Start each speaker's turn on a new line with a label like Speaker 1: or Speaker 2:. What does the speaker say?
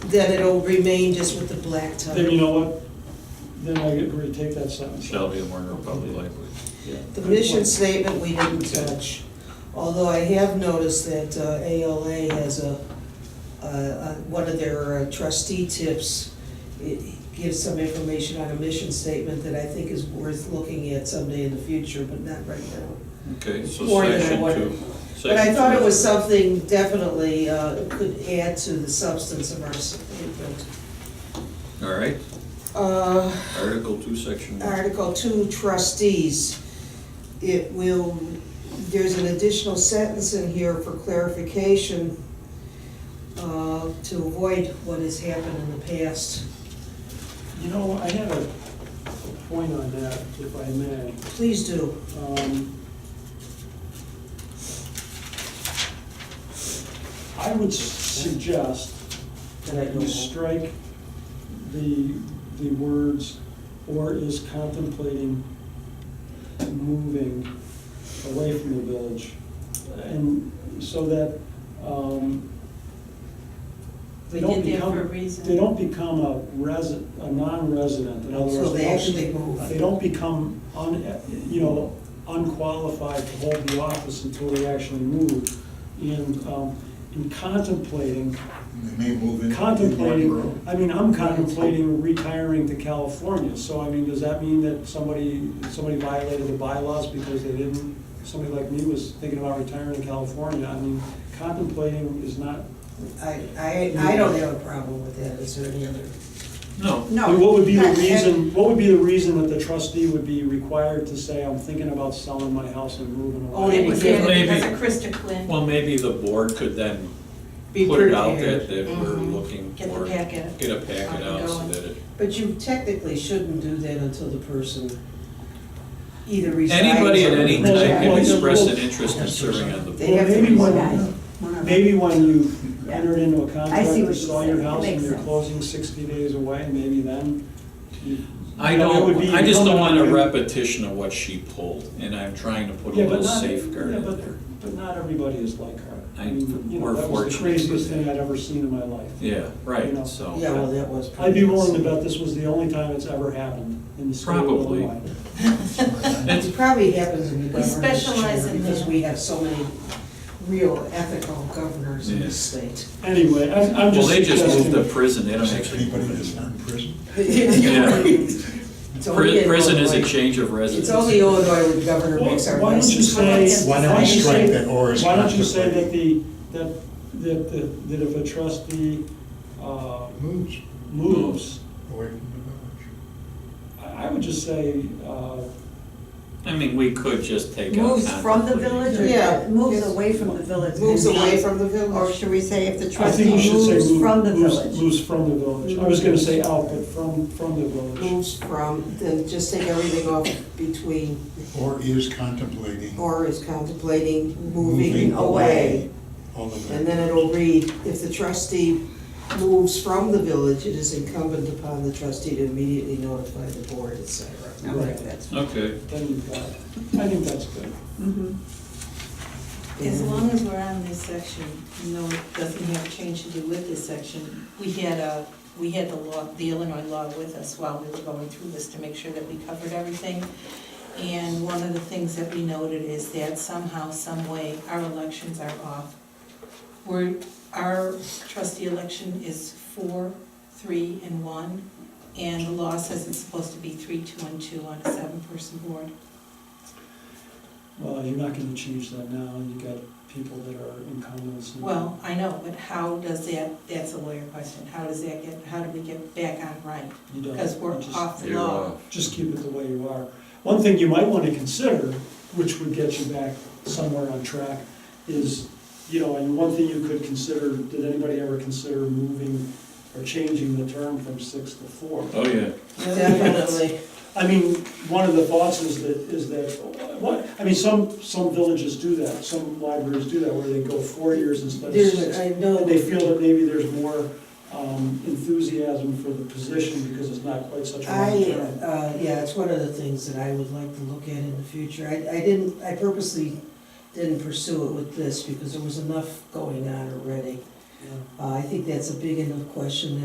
Speaker 1: then it'll remain just with the black
Speaker 2: Then
Speaker 1: title.
Speaker 2: you know what? Then I agree, take that sentence.
Speaker 3: Shall be a marker of public language.
Speaker 2: Yeah.
Speaker 1: The mission statement, we didn't touch, although I have noticed that uh, ALA has a, a- a- one of their uh, trustee tips, it gives some information on a mission statement that I think is worth looking at someday in the future, but not right now.
Speaker 3: Okay, so
Speaker 1: More than I
Speaker 3: section
Speaker 1: wanted.
Speaker 3: two.
Speaker 1: But I
Speaker 3: Section
Speaker 1: thought it
Speaker 3: two.
Speaker 1: was something definitely uh, could add to the substance of our statement.
Speaker 3: All right,
Speaker 1: Uh,
Speaker 3: Article two, section one.
Speaker 1: Article two trustees, it will, there's an additional sentence in here for clarification uh, to avoid what has happened in the past.
Speaker 2: You know, I had a a point on that, if I may.
Speaker 1: Please do.
Speaker 2: Um, I would suggest that you strike the, the words, or is contemplating moving away from the village. And so that, um, they
Speaker 4: We
Speaker 2: don't
Speaker 4: did that
Speaker 2: become.
Speaker 4: for a reason.
Speaker 2: They don't become a resident, a non-resident, in other words.
Speaker 1: So they
Speaker 2: don't-
Speaker 1: actually move.
Speaker 2: They don't become, un, you know, unqualified to hold the office until they actually move. And, um, in contemplating,
Speaker 5: They may move in.
Speaker 2: contemplating, I mean, I'm contemplating retiring to California, so I mean, does that mean that somebody, somebody violated the bylaws because they didn't, somebody like me was thinking about retiring to California, I mean, contemplating is not,
Speaker 1: I, I, I don't have a problem with that. Is there any other?
Speaker 3: No,
Speaker 1: No.
Speaker 2: I mean, what would be the
Speaker 1: not-
Speaker 2: reason, what would be the reason that the trustee would be required to say, I'm thinking about selling my house and moving
Speaker 1: Oh,
Speaker 2: away?
Speaker 1: it
Speaker 4: It
Speaker 1: was
Speaker 4: was given
Speaker 3: maybe-
Speaker 4: because of Krista Quinn.
Speaker 3: well, maybe the board could then
Speaker 1: Be
Speaker 3: put it out
Speaker 1: prepared.
Speaker 3: that, that we're
Speaker 4: Mhm.
Speaker 3: looking
Speaker 4: Get the
Speaker 3: for.
Speaker 4: packet.
Speaker 3: Get a packet out so
Speaker 4: Ongoing.
Speaker 3: that it,
Speaker 1: But you technically shouldn't do that until the person either resigns.
Speaker 3: anybody at
Speaker 1: or-
Speaker 3: any time
Speaker 2: Well,
Speaker 3: can
Speaker 2: well,
Speaker 3: express an
Speaker 2: well,
Speaker 3: interest in serving on the board.
Speaker 1: They have to
Speaker 2: Maybe when-
Speaker 1: resign.
Speaker 2: Maybe when you've entered into a contract,
Speaker 6: what
Speaker 2: you
Speaker 6: you
Speaker 2: sell
Speaker 6: said.
Speaker 2: your
Speaker 6: It
Speaker 2: house and
Speaker 6: makes
Speaker 2: you're
Speaker 6: sense.
Speaker 2: closing sixty days away, maybe then. you-
Speaker 3: I
Speaker 2: you know, it would
Speaker 3: don't,
Speaker 2: be
Speaker 3: I just don't want a
Speaker 2: incumbent on you-
Speaker 3: repetition of what she pulled, and I'm trying to put a
Speaker 2: Yeah, but
Speaker 3: little
Speaker 2: not,
Speaker 3: safeguard
Speaker 2: yeah,
Speaker 3: in
Speaker 2: but,
Speaker 3: there.
Speaker 2: but not everybody is like her.
Speaker 3: I-
Speaker 2: mean, you know,
Speaker 3: we're
Speaker 2: that was
Speaker 3: fortunate.
Speaker 2: the craziest thing I'd ever seen in my life.
Speaker 3: Yeah,
Speaker 2: You know.
Speaker 3: right, so.
Speaker 1: Yeah, well, that was.
Speaker 2: I'd be willing to bet this was the only time it's ever happened in the state of
Speaker 3: Probably.
Speaker 2: Illinois.
Speaker 1: It probably happens in the
Speaker 4: We
Speaker 1: governor's
Speaker 4: specialize
Speaker 1: chair
Speaker 4: in
Speaker 1: because
Speaker 4: that.
Speaker 1: we have so many real ethical governors in this state.
Speaker 2: Anyway, I'm, I'm
Speaker 3: Well,
Speaker 2: just
Speaker 3: they just moved
Speaker 2: suggesting.
Speaker 3: to prison, they don't
Speaker 5: Six
Speaker 3: actually.
Speaker 5: people that's not in prison.
Speaker 1: It's only
Speaker 3: Pri-
Speaker 1: in
Speaker 3: Prison is a
Speaker 1: Illinois.
Speaker 3: change of residence.
Speaker 1: It's only Illinois where the governor
Speaker 2: Why
Speaker 1: makes our
Speaker 2: why don't you
Speaker 1: license.
Speaker 2: say?
Speaker 5: Why don't we
Speaker 2: you
Speaker 5: strike
Speaker 2: say-
Speaker 5: that or is
Speaker 2: Why don't you say that the,
Speaker 5: contemplating?
Speaker 2: that, that, that- that if a trustee, uh,
Speaker 5: Moves
Speaker 2: moves,
Speaker 5: away from
Speaker 2: I, I would just say, uh,
Speaker 3: I mean, we could just take out.
Speaker 6: Moves from the
Speaker 3: contemplating.
Speaker 6: village or
Speaker 1: Yeah.
Speaker 6: moves
Speaker 1: Yes.
Speaker 6: away from the village?
Speaker 1: Moves
Speaker 6: and
Speaker 1: away
Speaker 6: not-
Speaker 1: from the
Speaker 6: Or
Speaker 1: village.
Speaker 6: should we say if the
Speaker 2: I think you
Speaker 6: trustee
Speaker 2: should say.
Speaker 6: moves
Speaker 2: move-
Speaker 6: from the
Speaker 2: moves-
Speaker 6: village?
Speaker 2: Moves from the village. I was gonna say out, but from, from the village.
Speaker 1: Moves from, then just take everything off between,
Speaker 5: the village. Or is contemplating.
Speaker 1: or is contemplating moving away.
Speaker 5: All of that.
Speaker 1: And then it'll read, if the trustee moves from the village, it is incumbent upon the trustee to immediately notify the board, et cetera.
Speaker 2: Right.
Speaker 6: Okay, that's,
Speaker 3: Okay,
Speaker 2: Then you've got, I think that's good.
Speaker 6: mhm.
Speaker 4: As long as we're on this section, no, it doesn't have change to do with this section. We had a, we had the law, the Illinois law with us while we were going through this to make sure that we covered everything. And one of the things that we noted is that somehow, some way, our elections are off. We're, our trustee election is four, three, and one, and the law says it's supposed to be three, two, and two on a seven-person board.
Speaker 2: Well, you're not gonna change that now. You've got people that are incumbents. and-
Speaker 4: Well, I know, but how does that, that's a lawyer question, how does that get, how do we get back on right?
Speaker 2: You don't.
Speaker 4: Because we're
Speaker 2: You just-
Speaker 4: off the
Speaker 3: you're
Speaker 4: law.
Speaker 3: off.
Speaker 2: just keep it the way you are. One thing you might want to consider, which would get you back somewhere on track, is, you know, and one thing you could consider, did anybody ever consider moving or changing the term from six to four?
Speaker 3: oh, yeah.
Speaker 1: Definitely.
Speaker 2: I mean, one of the thoughts is that, is that, what, I mean, some, some villages do that, some libraries do that, where they go four years instead of
Speaker 1: There's,
Speaker 2: six.
Speaker 1: I
Speaker 2: And
Speaker 1: know,
Speaker 2: they feel that maybe there's more um, enthusiasm for the position because it's not quite such a long
Speaker 1: I,
Speaker 2: term.
Speaker 1: uh, yeah, it's one of the things that I would like to look at in the future. I, I didn't, I purposely didn't pursue it with this because there was enough going on already.
Speaker 2: Yeah.
Speaker 1: Uh, I think that's a big enough question